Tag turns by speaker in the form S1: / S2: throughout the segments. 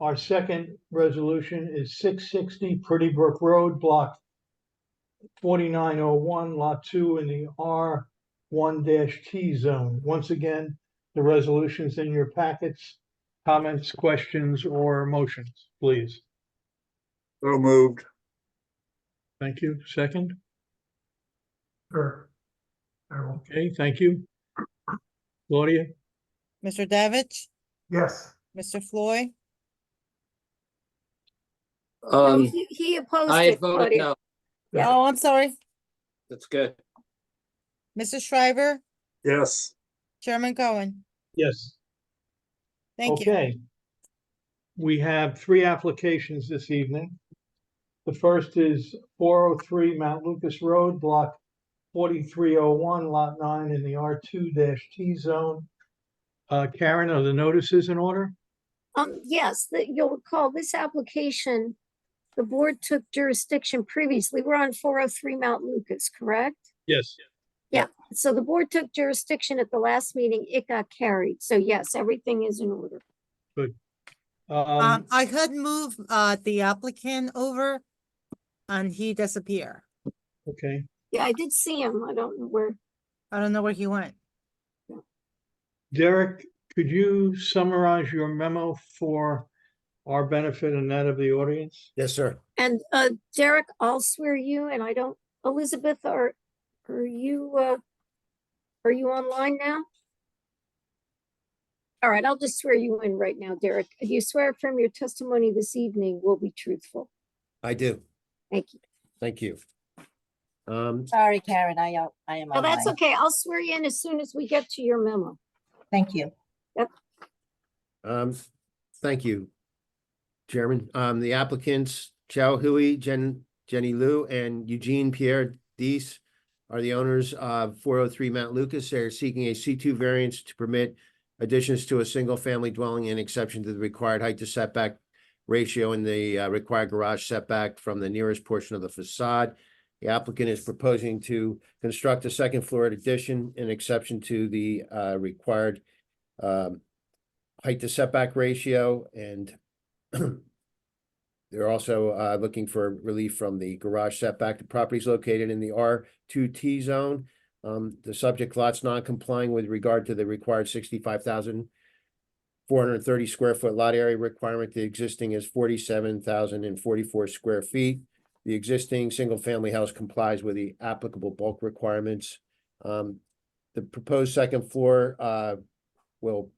S1: Our second resolution is six sixty Pretty Brook Road, block forty-nine oh one, lot two in the R one T zone. Once again, the resolutions in your packets. Comments, questions, or motions, please.
S2: So moved.
S1: Thank you. Second?
S3: Sure. I will,
S1: Okay, thank you. Claudia?
S4: Mr. Davich,
S3: yes,
S4: Mr. Floyd,
S5: No,
S6: Um,
S5: he- He opposed
S6: I
S5: it,
S6: voted
S5: Claudia.
S6: no.
S3: Yeah.
S4: oh, I'm sorry,
S6: That's good.
S4: Mrs. Shriver,
S2: Yes.
S4: Chairman Cohen,
S1: Yes.
S4: thank you.
S1: Okay. We have three applications this evening. The first is four oh three Mount Lucas Road, block forty-three oh one, lot nine in the R two T zone. Uh, Karen, are the notices in order?
S5: Um, yes, that you'll recall this application, the board took jurisdiction previously. We're on four oh three Mount Lucas, correct?
S1: Yes.
S5: So the board took jurisdiction at the last meeting. It got carried. So yes, everything is in order.
S1: Um,
S4: Um, I could move, uh, the applicant over and he disappear.
S1: okay,
S5: Yeah, I did see him. I don't know where.
S4: I don't know where he went.
S1: Derek, could you summarize your memo for our benefit and that of the audience?
S7: Yes, sir.
S5: And, uh, Derek, I'll swear you and I don't, Elizabeth, are, are you, uh, are you online now? All right, I'll just swear you in right now, Derek. Do you swear from your testimony this evening will be truthful?
S7: I do.
S5: Thank you.
S7: Thank you. Um,
S8: Sorry, Karen, I, uh, I am
S5: Well, Oh, that's
S8: online.
S5: okay. I'll swear you in as soon as we get to your memo.
S8: Thank you.
S7: um, thank you. Chairman, um, the applicants, Chao Hui, Jen, Jenny Liu, and Eugene Pierre Dees are the owners of four oh three Mount Lucas. They are seeking a C two variance to permit additions to a single family dwelling and exception to the required height to setback ratio and the uh, required garage setback from the nearest portion of the facade. The applicant is proposing to construct a second floor addition in exception to the uh, required um, height to setback ratio and they're also uh, looking for relief from the garage setback. The property is located in the R two T zone. Um, the subject lot's non complying with regard to the required sixty-five thousand four hundred thirty square foot lot area requirement. The existing is forty-seven thousand and forty-four square feet. The existing single-family house complies with the applicable bulk requirements. Um, the proposed second floor, uh, will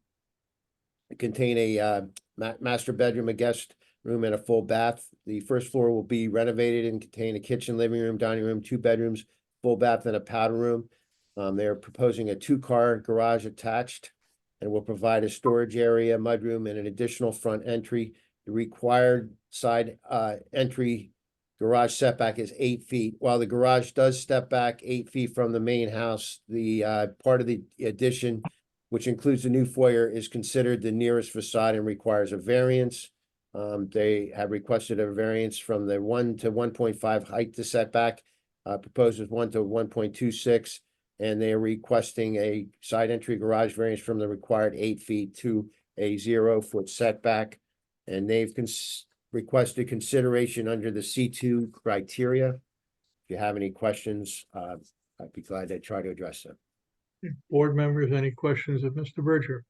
S7: contain a, uh, ma- master bedroom, a guest room and a full bath. The first floor will be renovated and contain a kitchen, living room, dining room, two bedrooms, full bath and a powder room. Um, they're proposing a two-car garage attached and will provide a storage area, mudroom and an additional front entry. The required side, uh, entry garage setback is eight feet. While the garage does step back eight feet from the main house, the, uh, part of the addition which includes the new foyer, is considered the nearest facade and requires a variance. Um, they have requested a variance from the one to one point five height to setback, uh, proposes one to one point two six. And they are requesting a side entry garage variance from the required eight feet to a zero foot setback. And they've cons- requested consideration under the C two criteria. If you have any questions, uh, I'd be glad to try to address them.
S1: Board members, any questions of Mr. Bridger?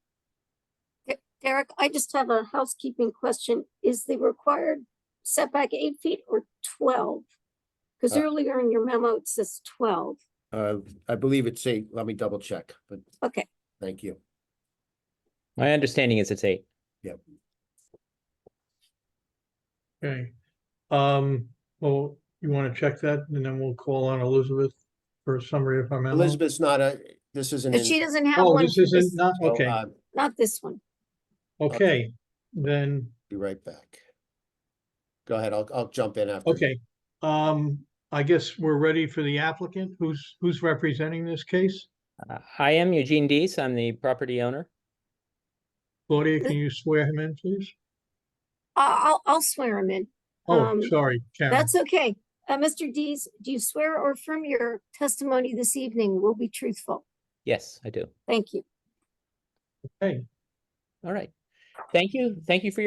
S5: Derek, I just have a housekeeping question. Is the required setback eight feet or twelve? Because
S7: Uh,
S5: earlier in your memo, it says twelve.
S7: Uh, I believe it's eight. Let me double check, but
S5: Okay,
S7: thank you.
S9: My understanding is it's eight.
S1: Okay, um, well, you want to check that and then we'll call on Elizabeth for a summary of our memo?
S7: Elizabeth's not a, this isn't.
S5: but she
S7: in-
S5: doesn't have
S1: Oh,
S5: one,
S1: this
S5: for
S1: isn't,
S5: this-
S1: not,
S7: so,
S1: okay,
S7: uh,
S5: not this one.
S1: okay, then,
S7: Be right back. Go ahead. I'll, I'll jump in after.
S1: okay. Um, I guess we're ready for the applicant. Who's, who's representing this case?
S9: Uh, I am Eugene Dees. I'm the property owner.
S1: Claudia, can you swear him in, please?
S5: I- I'll, I'll swear him in.
S1: Oh,
S5: Um,
S1: sorry, Karen.
S5: That's okay. Uh, Mr. Dees, do you swear or affirm your testimony this evening will be truthful?
S9: Yes, I do.
S5: Thank you.
S1: Okay.
S9: All right. Thank you. Thank you for your.